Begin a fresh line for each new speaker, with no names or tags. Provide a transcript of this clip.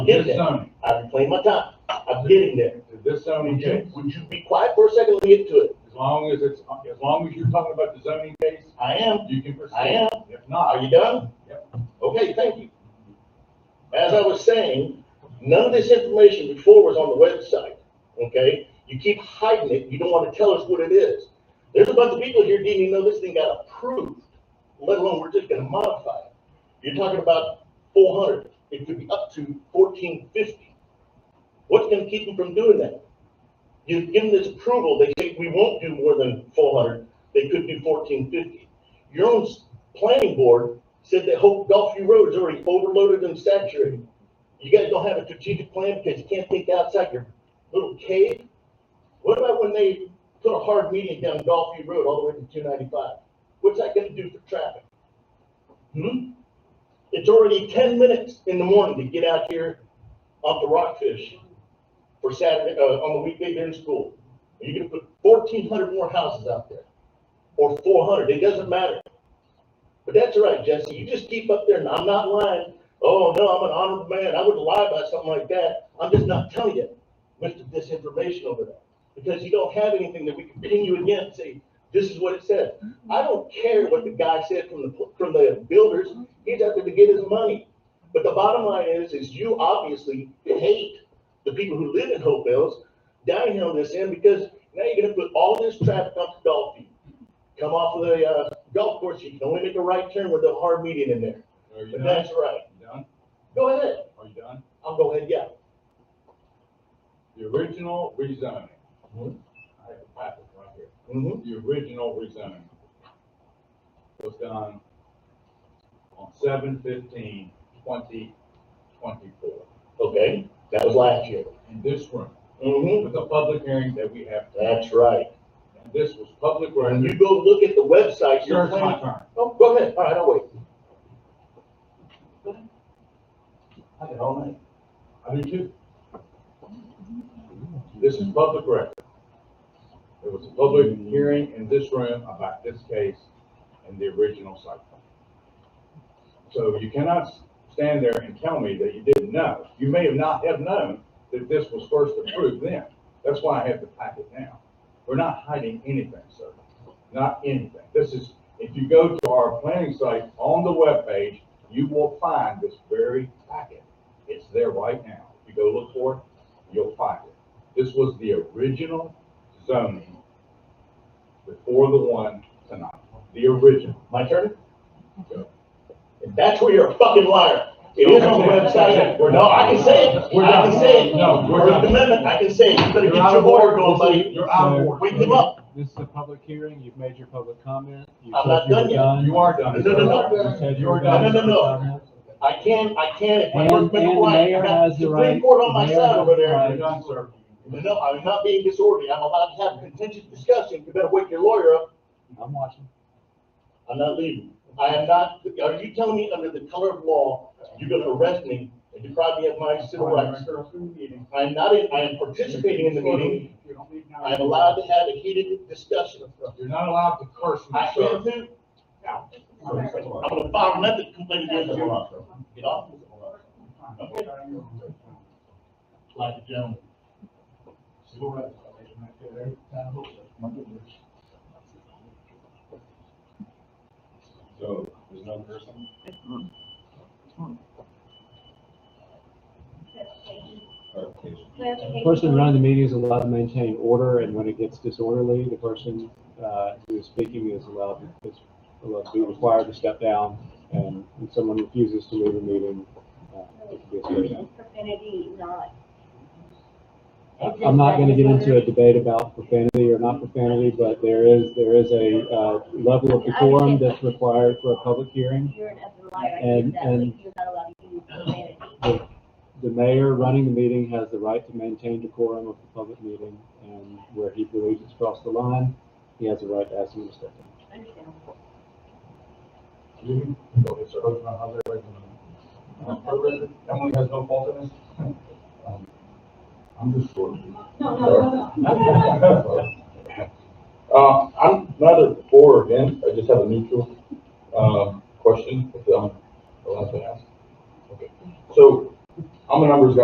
Get
This
there.
zoning,
I'm playing my time. I'm getting there.
this zoning
Would
case,
you, would you be quiet for a second? Let me get to it.
as long as it's, as long as you're talking about the zoning case,
I am.
you can proceed.
I am.
If
Are
not,
you done?
Yep.
Okay, thank you. As I was saying, none of this information before was on the website, okay? You keep hiding it. You don't want to tell us what it is. There's a bunch of people here didn't even know this thing got approved, let alone we're just gonna modify it. You're talking about four hundred. It could be up to fourteen fifty. What's gonna keep them from doing that? You've given this approval, they say we won't do more than four hundred, they could do fourteen fifty. Your own s- planning board said that Hope Gulfview Road is already overloaded and saturated. You guys don't have a strategic plan because you can't think outside your little cave? What about when they put a hard median down Gulfview Road all the way to two ninety-five? What's that gonna do for traffic? Hmm? It's already ten minutes in the morning to get out here off the Rockfish for Saturday, uh, on the weekday during school. You're gonna put fourteen hundred more houses out there, or four hundred, it doesn't matter. But that's all right, Jesse, you just keep up there, and I'm not lying. Oh, no, I'm an honorable man, I wouldn't lie about something like that. I'm just not telling you with the disinformation over that. Because you don't have anything that we can pin you against, say, this is what it said. I don't care what the guy said from the, from the builders, he's out there to get his money. But the bottom line is, is you obviously hate the people who live in Hope Mills down here on this end, because now you're gonna put all this traffic up to Dolphin. Come off of the, uh, golf course, you can only make a right turn with a hard median in there,
are you
but
done?
that's right.
You Done?
Go ahead,
Are you done?
I'll go ahead, yeah.
The original rezoning.
Mhm.
I have a packet right here.
Mm-hmm.
The original rezoning was done on seven fifteen twenty twenty-four
Okay, that was last year.
in this room
Mm-hmm.
with a public hearing that we have.
That's right.
And this was public
When you
record.
go look at the website, you're
Here's
planning.
my turn.
Oh, go ahead, all right, I'll wait. Go ahead. I got all night.
I do too. This is public record. There was a public hearing in this room about this case and the original site plan. So you cannot s- stand there and tell me that you didn't know. You may have not have known that this was first approved then. That's why I have the packet now. We're not hiding anything, sir. Not anything. This is, if you go to our planning site on the webpage, you will find this very packet. It's there right now. If you go look for it, you'll find it. This was the original zoning before the one tonight, the original.
My turn?
Go.
And That's where you're a fucking liar. It is on the website.
We're
No,
not-
I can say it,
We're
I
not-
can say it.
No, we're
First
not.
Amendment, I can say it. You better
You're
get
out
your
of
order
order,
going, buddy.
You're out of order.
Wake him up.
This is a public hearing, you've made your public comment. You
I'm
said
not
you were
done yet.
Uh, You are done.
No, no, no.
You said you
You're
were
done.
done.
No, no, no, I can, I can, if my
And-
workman's
and the
right.
mayor
I got
has the
Supreme
right-
Court on my
the mayor
side over
has the
there.
right.
You're done, sir.
No, I'm not being disorderly. I'm allowed to have a contentious discussion. You better wake your lawyer up.
I'm watching.
I'm not leaving. I am not, are you telling me under the color of law, you're gonna arrest me and deprive me of my civil rights? I'm not, in- I am participating in the meeting. I am allowed to have a heated discussion.
You're not allowed to curse me,
I
sir.
am who?
Now.
I'm gonna file a method complaint against you. Get off. Okay. Like a gentleman.
So, there's no person?
The person running the meeting is allowed to maintain order, and when it gets disorderly, the person, uh, who is speaking is allowed, is allowed to be required to step down. And when someone refuses to leave the meeting, uh, it can be a straight out.
Profanity, not.
I'm not gonna get into a debate about profanity or not profanity, but there is, there is a, uh, level of decorum that's required for a public hearing.
You're an open liar, I
And-
think that,
and-
but you're not allowed to use profanity.
the, the mayor running the meeting has the right to maintain decorum of the public meeting, and where he believes it's crossed the line, he has the right to ask him to step down.
Understandable.
Uh, Go ahead, sir. Emily has no fault in this? I'm just for Uh, I'm neither for or against, I just have a uh, neutral, um, question, if I'm allowed to ask. Okay. So, I'm a numbers guy.